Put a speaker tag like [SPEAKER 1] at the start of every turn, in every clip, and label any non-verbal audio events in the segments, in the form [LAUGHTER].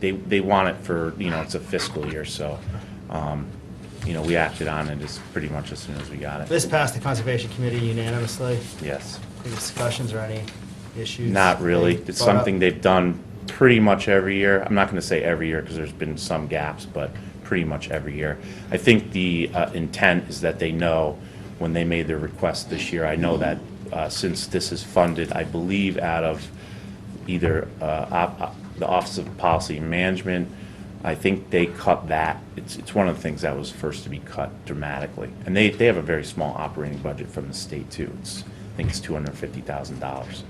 [SPEAKER 1] they, they want it for, you know, it's a fiscal year, so, um, you know, we acted on it as pretty much as soon as we got it.
[SPEAKER 2] This passed the Conservation Committee unanimously.
[SPEAKER 1] Yes.
[SPEAKER 2] Any discussions or any issues?
[SPEAKER 1] Not really.
[SPEAKER 2] Brought
[SPEAKER 1] It's
[SPEAKER 2] up?
[SPEAKER 1] something they've done pretty much every year. I'm not going to say every year because there's been some gaps, but pretty much every year. I think the uh, intent is that they know when they made their request this year, I know that uh, since this is funded, I believe out of either uh, op- op- the Office of Policy and Management, I think they cut that. It's, it's one of the things that was first to be cut dramatically. And they, they have a very small operating budget from the state too. It's, I think it's $250,000.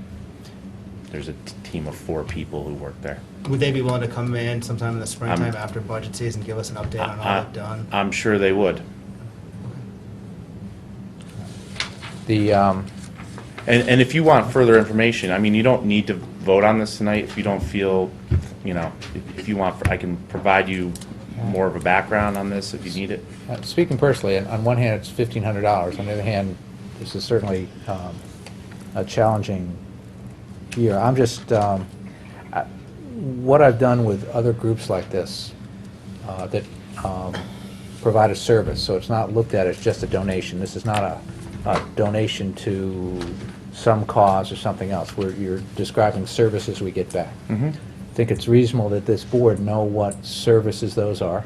[SPEAKER 1] There's a t- team of four people who work there.
[SPEAKER 2] Would they be willing to come in sometime in the springtime after budget season, give us an update on all they've done?
[SPEAKER 1] I'm sure they would.
[SPEAKER 3] The, um,
[SPEAKER 1] And, and if you want further information, I mean, you don't need to vote on this tonight if you don't feel, you know, if- if you want, I can provide you more of a background on this if you need it.
[SPEAKER 3] uh, speaking personally, on- on one hand, it's fifteen hundred dollars, on the other hand, this is certainly, um, a challenging year. I'm just, um, I- what I've done with other groups like this, uh, that, um, provide a service, so it's not looked at as just a donation. This is not a, a donation to some cause or something else, where you're describing services we get back. I think it's reasonable that this board know what services those are.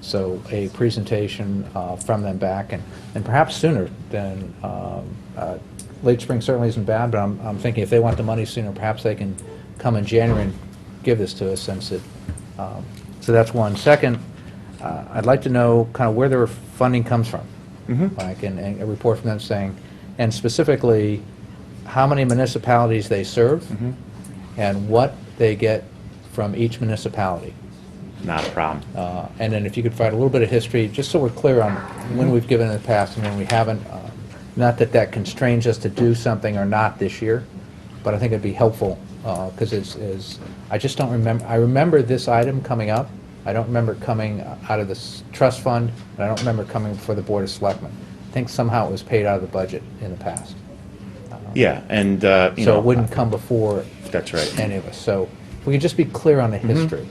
[SPEAKER 3] So a presentation uh, from them back, and and perhaps sooner than, um, uh, late spring certainly isn't bad, but I'm I'm thinking if they want the money sooner, perhaps they can come in January and give this to us since it, um, so that's one. Second, uh, I'd like to know kind of where their funding comes from. Like, and and a report from them saying, and specifically, how many municipalities they serve, and what they get from each municipality.
[SPEAKER 1] Not a problem.
[SPEAKER 3] Uh, And then if you could provide a little bit of history, just so we're clear on when we've given in the past and when we haven't. uh, Not that that constrains us to do something or not this year, but I think it'd be helpful, because it's, is, I just don't remember, I remember this item coming up. I don't remember it coming out of the s- trust fund, and I don't remember it coming before the Board of Selectmen. I think somehow it was paid out of the budget in the past.
[SPEAKER 1] Yeah, and, uh, you know.
[SPEAKER 3] So it wouldn't come before
[SPEAKER 1] That's right. Mm-hmm.
[SPEAKER 3] any of us. So if we could just be clear on the history.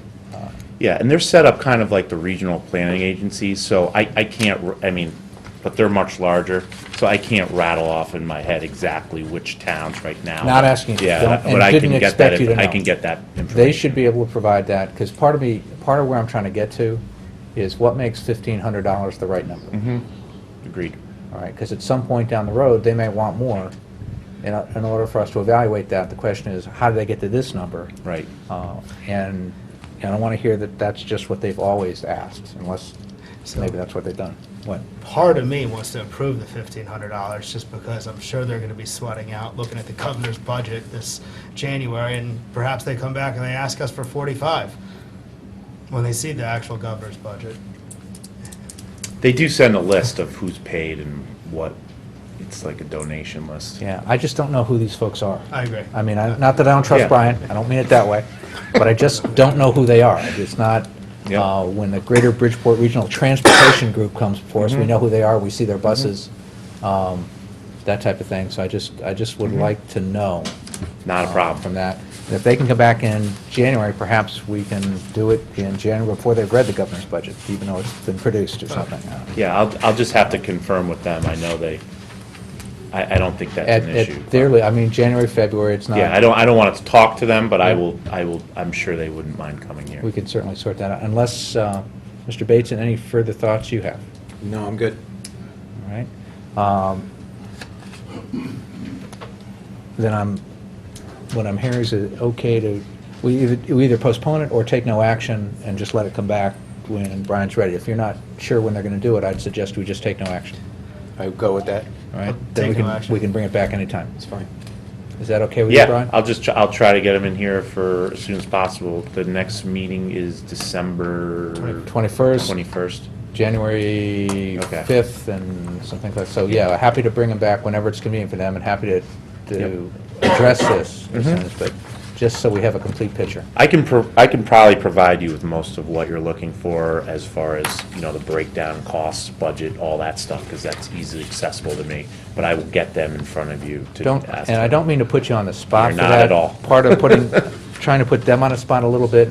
[SPEAKER 1] Yeah, and they're set up kind of like the regional planning agencies, so I, I can't, r- I mean, but they're much larger, so I can't rattle off in my head exactly which towns right now.
[SPEAKER 3] Not asking.
[SPEAKER 1] Yeah,
[SPEAKER 3] Don't-
[SPEAKER 1] but
[SPEAKER 3] and
[SPEAKER 1] I can
[SPEAKER 3] didn't
[SPEAKER 1] get that,
[SPEAKER 3] expect you
[SPEAKER 1] inf-
[SPEAKER 3] to
[SPEAKER 1] I
[SPEAKER 3] know.
[SPEAKER 1] can get that information.
[SPEAKER 3] They should be able to provide that, because part of me, part of where I'm trying to get to is what makes fifteen hundred dollars the right number?
[SPEAKER 1] Agreed.
[SPEAKER 3] All right, because at some point down the road, they may want more. In, in order for us to evaluate that, the question is, how do they get to this number?
[SPEAKER 1] Right.
[SPEAKER 3] Uh, And, and I want to hear that that's just what they've always asked, unless, maybe that's what they've done. What?
[SPEAKER 2] Part of me wants to approve the fifteen hundred dollars, just because I'm sure they're gonna be sweating out, looking at the governor's budget this January, and perhaps they come back and they ask us for forty-five when they see the actual governor's budget.
[SPEAKER 1] They do send a list of who's paid and what, it's like a donation list.
[SPEAKER 3] Yeah, I just don't know who these folks are.
[SPEAKER 2] I agree.
[SPEAKER 3] I mean, I, not that I don't
[SPEAKER 1] Yeah.
[SPEAKER 3] trust Brian, I don't mean it that way, but
[SPEAKER 1] [LAUGHS]
[SPEAKER 3] I just don't know who they are. It's not,
[SPEAKER 1] Yeah.
[SPEAKER 3] uh, when the Greater Bridgeport Regional Transportation Group comes before us, we
[SPEAKER 1] Mm-hmm.
[SPEAKER 3] know who they are, we see their buses, um, that type of thing, so I just, I just would like to know.
[SPEAKER 1] Not a
[SPEAKER 3] uh,
[SPEAKER 1] Mm-hmm. problem.
[SPEAKER 3] From that. And If they can come back in January, perhaps we can do it in January before they've read the governor's budget, even though it's been produced or
[SPEAKER 1] Uh,
[SPEAKER 3] something. I don't know.
[SPEAKER 1] Yeah, I'll, I'll just have to confirm with them, I know they, I, I don't think
[SPEAKER 3] At,
[SPEAKER 1] that's an issue.
[SPEAKER 3] at their, li- I mean, January, February, it's not.
[SPEAKER 1] Yeah, I don't, I don't want to talk to them, but I will, I will, I'm sure they wouldn't mind coming here.
[SPEAKER 3] We could certainly sort that out, unless, uh, Mr. Bateson, any further thoughts you have,
[SPEAKER 4] No, I'm good.
[SPEAKER 3] all right? Um, Then I'm, what I'm hearing is it okay to, we either we either postpone it or take no action and just let it come back when Brian's ready. If you're not sure when they're going to do it, I'd suggest we just take no action,
[SPEAKER 4] I go with that.
[SPEAKER 3] all right?
[SPEAKER 2] Take
[SPEAKER 3] Then we
[SPEAKER 2] no
[SPEAKER 3] can-
[SPEAKER 2] action.
[SPEAKER 3] We can bring it back anytime.
[SPEAKER 4] It's fine.
[SPEAKER 3] Is that okay with you, Brian?
[SPEAKER 1] Yeah, I'll just, tr- I'll try to get them in here for as soon as possible. The next meeting is December.
[SPEAKER 2] Twenty-
[SPEAKER 3] 21st.
[SPEAKER 1] 21st.
[SPEAKER 3] January
[SPEAKER 1] Okay.
[SPEAKER 3] 5th and something like, so yeah, happy to bring them back whenever it's convenient for them and happy to, to address this
[SPEAKER 1] Mm-hmm.
[SPEAKER 3] as soon as, but just so we have a complete picture.
[SPEAKER 1] I can, pro- I can probably provide you with most of what you're looking for as far as, you know, the breakdown, costs, budget, all that stuff, because that's easily accessible to me. But I will get them in front of you to
[SPEAKER 3] Don't,
[SPEAKER 1] ask
[SPEAKER 3] and I
[SPEAKER 1] them.
[SPEAKER 3] don't mean to put you on the spot
[SPEAKER 1] You're
[SPEAKER 3] for
[SPEAKER 1] not
[SPEAKER 3] that.
[SPEAKER 1] at all. [LAUGHS]
[SPEAKER 3] Part of putting, trying to put them on the spot a little bit